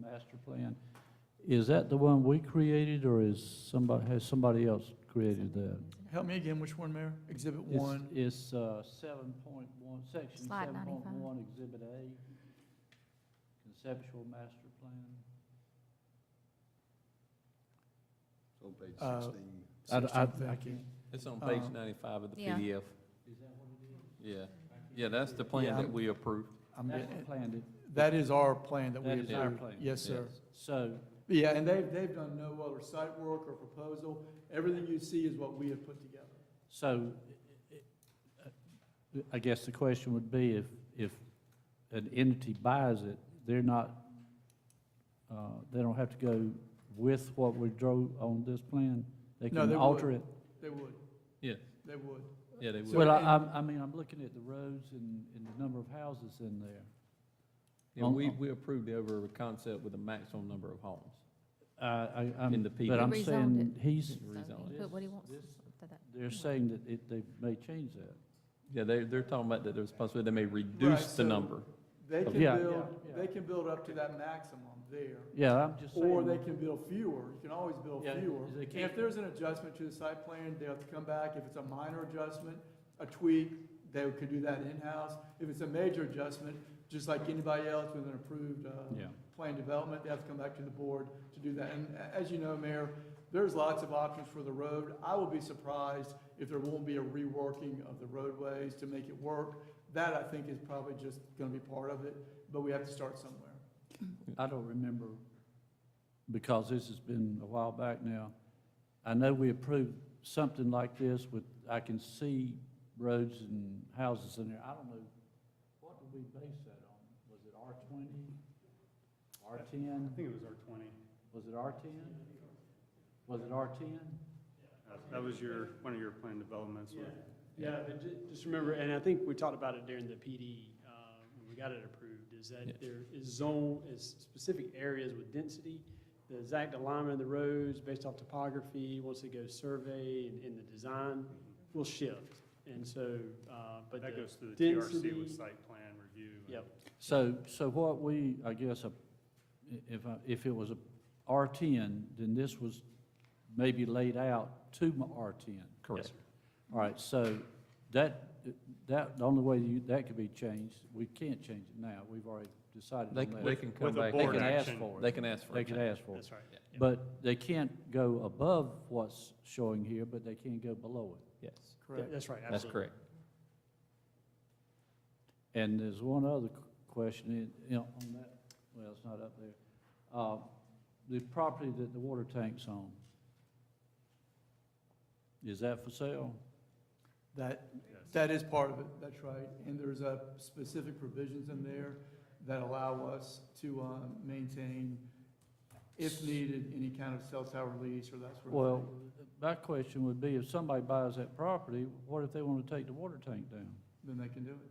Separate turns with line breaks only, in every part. master plan, is that the one we created, or is somebody, has somebody else created that?
Help me again, which one, Mayor? Exhibit
It's-
one,
It's uh, seven point one, section
Slide
seven
95.
point one, exhibit A, conceptual master plan.
It's on page
Uh,
sixteen.
I d- I-
16,
I
thank
can't-
you.
It's
um,
on page
Uh,
ninety-five of the
Yeah.
PDF.
Is that what it is?
Yeah, yeah, that's the
Yeah,
plan that
I'm-
we approved.
I'm
That's
getting-
what planned it,
That is our plan that we
That
approved.
is our plan.
Yes, sir.
Yes.
so,
Yeah, and they've, they've done no other site work or proposal. Everything you see is what we have put together.
so, i- i- uh, I guess the question would be if, if an entity buys it, they're not, uh, they don't have to go with what we drew on this plan? They
No,
can
they
alter
would.
it?
They would,
Yeah,
they would.
yeah, they would.
Well, I,
and-
I'm- I mean, I'm looking at the roads and, and the number of houses in there.
Yeah,
on-
we,
on-
we approved over a concept with a maximum number of homes.
I, Uh, I, I'm,
In the
but
PD.
I'm
Rezoned
saying he's,
So he
Rezoned
can
it.
put what he wants
This-
to that.
they're saying that it, they may change that.
Yeah, they, they're talking about that there's a possibility they may reduce the
so-
number.
They can
Oh, Yeah.
build,
Yeah, yeah.
they can build up to that maximum there.
Yeah, I'm just saying.
Or they can build fewer, you can always build
Yeah,
fewer.
they
And
can't-
if there's an adjustment to the site plan, they have to come back, if it's a minor adjustment, a tweak, they could do that in-house. If it's a major adjustment, just like anybody else with an approved, uh,
Yeah,
plan development, they have to come back to the board to do that. And a- as you know, Mayor, there's lots of options for the road. I will be surprised if there won't be a reworking of the roadways to make it work. That, I think, is probably just gonna be part of it, but we have to start somewhere.
I don't remember, because this has been a while back now. I know we approved something like this with, I can see roads and houses in there. I don't know, what did we base that on? Was it R twenty? R ten?
I think it was R twenty.
Was it R ten? Was it R ten?
Uh, That was your, one of your planned developments. wasn't it?
Yeah, but ju- just remember, and I think we talked about it during the PD, uh, when we got it approved, is
Yeah.
that there is zone, is specific areas with density, the exact alignment of the roads based off topography, once it goes survey and, and the design will shift. And so, uh, but
That
the,
goes through the TRC
density-
with site plan review. and-
yep,
So, so what we, I guess, uh, i- if, I- if it was a R ten, then this was maybe laid out to my R ten.
yes, sir.
All right, so that, that, the only way you, that could be changed, we can't change it now, we've already decided
They,
on
c-
that.
they can come
With a
back.
They
board
can ask
action.
for
They
it,
can ask for
they
it.
can ask for it.
that's right. Yeah.
But they can't go above what's showing here, but they can go below it.
Yes,
Th- That's right,
that's
absolutely.
correct.
And there's one other q- question, in- you know, on that, well, it's not up there. Uh, The property that the water tank's on, is that for sale?
That,
Yes.
that is part of it, that's right. And there's a specific provisions in there that allow us to, uh, maintain, if needed, any kind of cell tower lease or that sort of thing.
Well, my question would be, if somebody buys that property, what if they want to take the water tank down?
Then they can do it.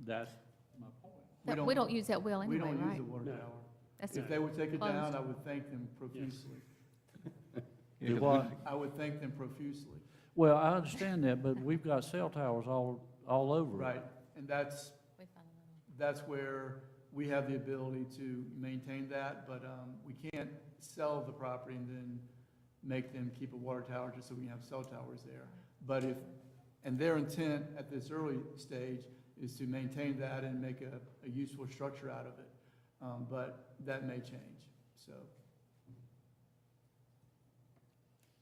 That's my point.
We
That- We don't use that well
We
anyway,
don't use
right?
the water
No.
tower.
That's
If they would take it
Closed.
down, I would thank them profusely.
Yeah,
Do
'cause we-
what?
I would thank them profusely,
Well, I understand that, but we've got cell towers all, all over. it.
right? And that's,
We found another
that's where we have the ability to maintain that, but um, we can't sell the property and then make them keep a water tower just so we can have cell towers there. But if, and their intent at this early stage is to maintain that and make a, a useful structure out of it. Um, But that may change, so.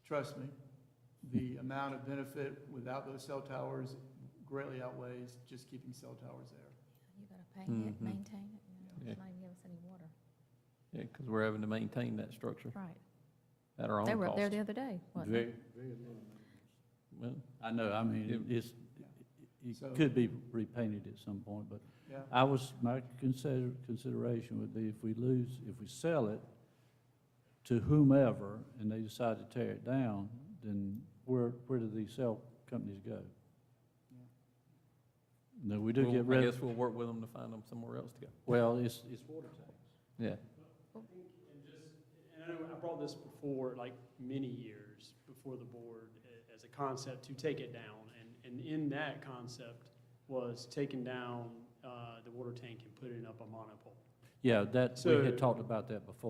Trust me, the amount of benefit without those cell towers greatly outweighs just keeping cell towers there.
one. You gotta pay
Mm-hmm.
Mhm.
it, maintain it, you know,
Yeah.
it's not even give us any water.
Yeah, because we're having to maintain that structure
Right.
at our
They
own
were up there
cost.
the other day, wasn't they?
Very, very little.
Well,
I know, I mean, it- it's,
So-
it could be repainted at some point, but
Yeah,
I was, my consider, consideration would be if we lose, if we sell it to whomever and they decide to tear it down, then where, where do these cell companies go? No, we do
we'll-
get
I
rid
guess
of,
we'll work with them to find them somewhere else to go.
well, it's, it's water tanks.
Yeah,
And just, and I know I brought this before, like many years before the board, a- as a concept to take it down. And, and in that concept was taking down, uh, the water tank and putting up a monopole.
Yeah, that, we
So-
had talked about that before.